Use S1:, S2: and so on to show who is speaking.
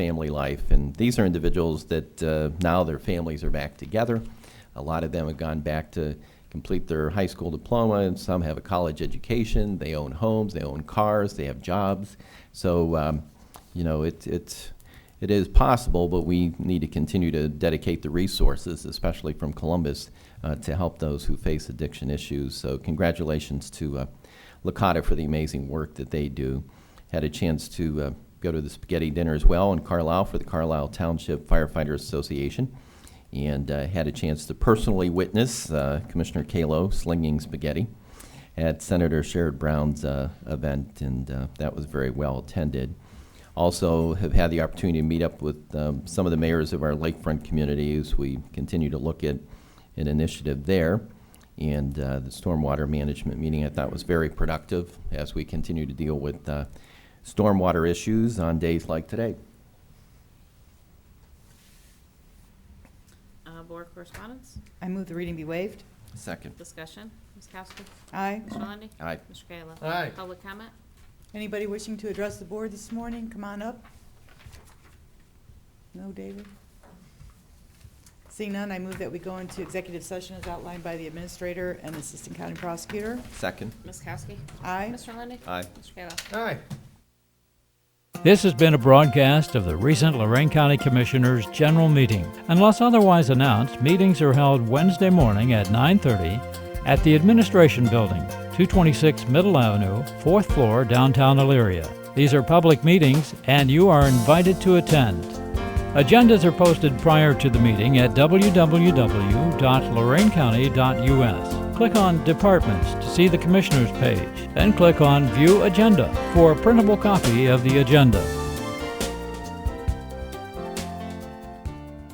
S1: family life. And these are individuals that uh, now their families are back together. A lot of them have gone back to complete their high school diploma, and some have a college education. They own homes, they own cars, they have jobs. So, um, you know, it, it's, it is possible, but we need to continue to dedicate the resources, especially from Columbus, uh, to help those who face addiction issues. So, congratulations to uh, Licata for the amazing work that they do. Had a chance to uh, go to the spaghetti dinner as well in Carlisle for the Carlisle Township Firefighters Association and uh, had a chance to personally witness uh, Commissioner Kalo slinging spaghetti at Senator Sherrod Brown's uh, event, and uh, that was very well attended. Also, have had the opportunity to meet up with um, some of the mayors of our lakefront communities. We continue to look at an initiative there. And uh, the stormwater management meeting I thought was very productive as we continue to deal with uh, stormwater issues on days like today.
S2: Uh, Board correspondence,
S3: I move the reading be waived.
S1: Second.
S2: discussion, Ms. Kowski,
S3: Aye.
S2: Mr. Lundey.
S1: Aye.
S2: Mr. Kayla.
S4: Aye.
S2: Public comment,
S3: Anybody wishing to address the board this morning, come on up. No, David? Seeing none, I move that we go into executive session as outlined by the administrator and assistant county prosecutor.
S1: Second.
S2: Ms. Kowski.
S3: Aye.
S2: Mr. Lundey.
S1: Aye.
S2: Mr. Kayla.
S4: Aye.
S5: This has been a broadcast of the recent Lorraine County Commissioners' General Meeting. Unless otherwise announced, meetings are held Wednesday morning at 9:30 at the Administration Building, 226 Middle Avenue, 4th floor, downtown Elyria. These are public meetings and you are invited to attend. Agendas are posted prior to the meeting at www.lorainecounty.us. Click on Departments to see the Commissioners page, then click on View Agenda for a printable copy of the agenda.